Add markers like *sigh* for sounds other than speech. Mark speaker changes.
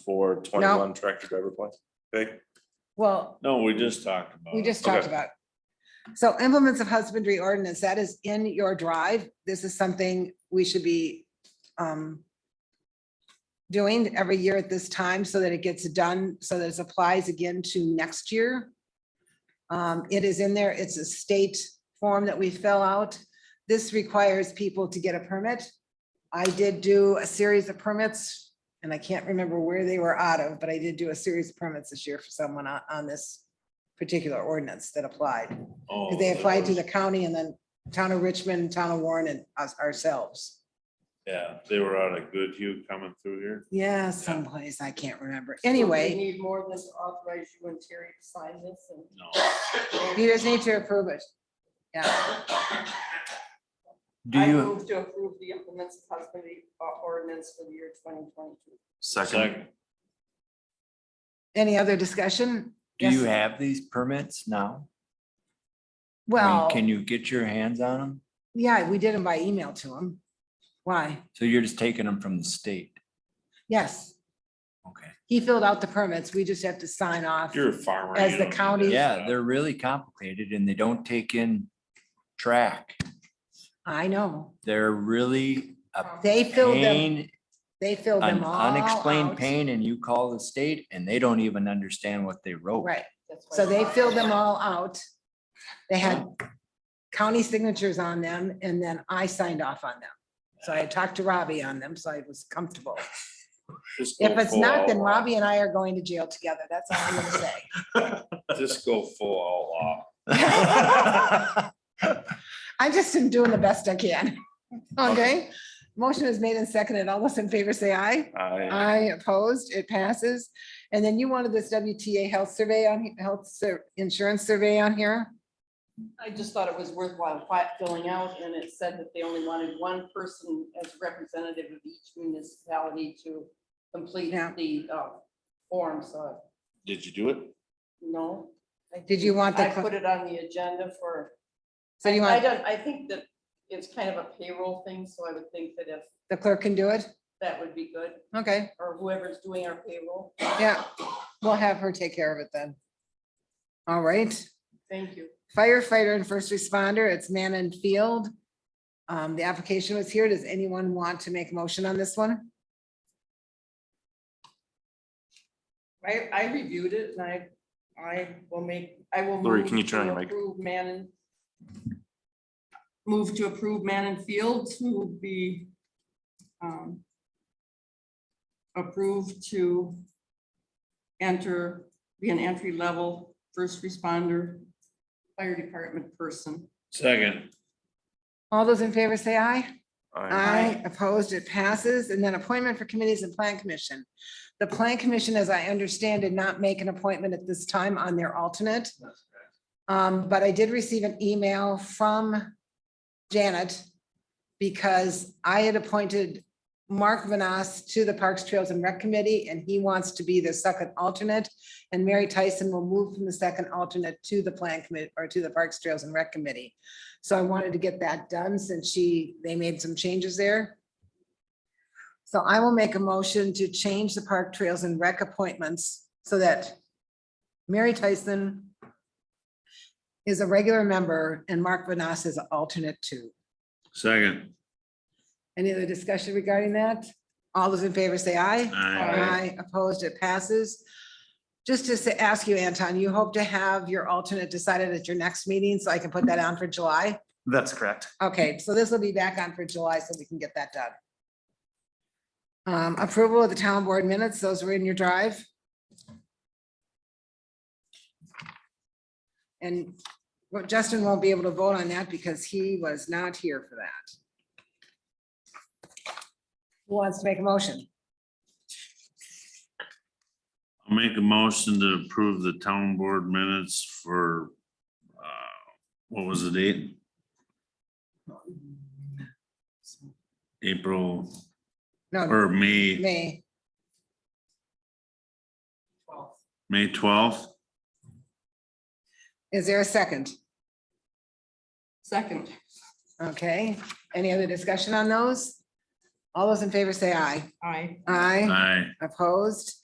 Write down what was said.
Speaker 1: for twenty-one tractor driver plans? Okay,
Speaker 2: Well,
Speaker 3: No, we just talked about.
Speaker 2: we
Speaker 3: it.
Speaker 2: just talked
Speaker 1: Okay.
Speaker 2: about. it. So implements of husbandry ordinance, that is in your drive. This is something we should be um doing every year at this time so that it gets done, so that it applies again to next year. Um, it is in there. It's a state form that we fill out. This requires people to get a permit. I did do a series of permits and I can't remember where they were out of, but I did do a series of permits this year for someone on, on this particular ordinance that applied. 'Cause
Speaker 3: Oh,
Speaker 2: They
Speaker 3: that
Speaker 2: applied to
Speaker 3: was-
Speaker 2: the county and then town of Richmond, town of Warren and us ourselves.
Speaker 3: Yeah, they were out of Goodhue coming through here.
Speaker 2: Yeah, someplace I can't remember.
Speaker 4: We
Speaker 2: Anyway,
Speaker 4: need more than to authorize you and Terry to sign this and.
Speaker 3: No,
Speaker 2: you just need to approve it. Yeah,
Speaker 5: Do
Speaker 4: I
Speaker 5: you,
Speaker 4: move to approve the implements of husbandry uh, ordinance for the year twenty twenty-two.
Speaker 1: second,
Speaker 3: second,
Speaker 2: any other discussion?
Speaker 5: do you
Speaker 2: Yes.
Speaker 5: have these permits now? I mean,
Speaker 2: Well,
Speaker 5: Can you get your hands on them?
Speaker 2: yeah, we did them by email to them. Why?
Speaker 5: So you're just taking them from the state?
Speaker 2: Yes,
Speaker 5: Okay.
Speaker 2: he filled out the permits. We just have to sign off.
Speaker 3: you're a farmer.
Speaker 2: As
Speaker 3: you
Speaker 2: the
Speaker 3: don't need
Speaker 2: county-
Speaker 3: that
Speaker 5: Yeah,
Speaker 3: stuff.
Speaker 5: they're really complicated and they don't take in track.
Speaker 2: I know.
Speaker 5: They're really
Speaker 4: Um,
Speaker 5: a
Speaker 2: Uh, They filled them,
Speaker 5: pain,
Speaker 2: they filled
Speaker 5: an
Speaker 2: them all out.
Speaker 5: unexplained pain and you call the state and they don't even understand what they wrote.
Speaker 2: Right.
Speaker 4: That's why
Speaker 2: So they
Speaker 4: we're-
Speaker 2: filled them all out. They had county signatures on them and then I signed off on them. So I had talked to Robbie on them, so I was comfortable.
Speaker 3: Just go
Speaker 2: If it's
Speaker 3: full
Speaker 2: not, then
Speaker 3: outlaw.
Speaker 2: Robbie and I are going to jail together. That's all I'm gonna say.
Speaker 3: Just go full outlaw.
Speaker 5: *laughs*
Speaker 2: *laughs* I just am doing the best I can. *laughs* Okay, motion is made and seconded. All those in favor say aye.
Speaker 1: I,
Speaker 2: Aye opposed, it passes. And then you wanted this WTA health survey on, health sur- insurance survey on here?
Speaker 4: I just thought it was worthwhile fi- filling out and it said that they only wanted one person as representative of each municipality to complete
Speaker 2: Yeah.
Speaker 4: the uh, form, so,
Speaker 3: Did you do it?
Speaker 4: no. I
Speaker 2: Did you want the
Speaker 4: I
Speaker 2: co-
Speaker 4: put it on the agenda for,
Speaker 2: So you
Speaker 4: I
Speaker 2: want,
Speaker 4: don't, I think that it's kind of a payroll thing, so I would think that if
Speaker 2: the clerk can do it?
Speaker 4: that would be good,
Speaker 2: Okay,
Speaker 4: or whoever's doing our payroll,
Speaker 2: yeah, we'll have her take care of it then. All right.
Speaker 4: thank you.
Speaker 2: firefighter and first responder, it's man and field. Um, the application was here. Does anyone want to make a motion on this one?
Speaker 4: I, I reviewed it and I, I will make, I will.
Speaker 1: Lori,
Speaker 4: move
Speaker 1: can you turn on
Speaker 4: to
Speaker 1: your mic?
Speaker 4: approve Manon. Move to approve Manon Field to be um, approved to enter, be an entry level first responder, fire department person.
Speaker 3: Second,
Speaker 2: All those in favor say aye.
Speaker 1: I,
Speaker 2: Aye, opposed, it passes. And then appointment for committees and plan commission. The plan commission, as I understand, did not make an appointment at this time on their alternate. Um, but I did receive an email from Janet because I had appointed Mark Vanas to the Parks, Trails and Rec Committee, and he wants to be the second alternate. And Mary Tyson will move from the second alternate to the plan commit, or to the Parks, Trails and Rec Committee. So I wanted to get that done since she, they made some changes there. So I will make a motion to change the Park Trails and Rec appointments so that Mary Tyson is a regular member and Mark Vanas is an alternate too.
Speaker 3: second,
Speaker 2: Any other discussion regarding that? All those in favor say aye.
Speaker 3: aye.
Speaker 2: Aye, opposed, it passes. Just to say- ask you, Anton, you hope to have your alternate decided at your next meeting, so I can put that on for July?
Speaker 6: That's correct.
Speaker 2: Okay, so this will be back on for July, so we can get that done. Um, Approval of the town board minutes, those were in your drive. And well, Justin won't be able to vote on that because he was not here for that. Who wants to make a motion?
Speaker 3: I'll Make a motion to approve the town board minutes for, uh, what was the date? April
Speaker 2: No,
Speaker 3: or May,
Speaker 2: May,
Speaker 3: May twelfth?
Speaker 2: is there a second?
Speaker 4: Second,
Speaker 2: Okay, any other discussion on those? All those in favor say aye.
Speaker 4: aye.
Speaker 2: Aye,
Speaker 3: Aye.
Speaker 2: opposed,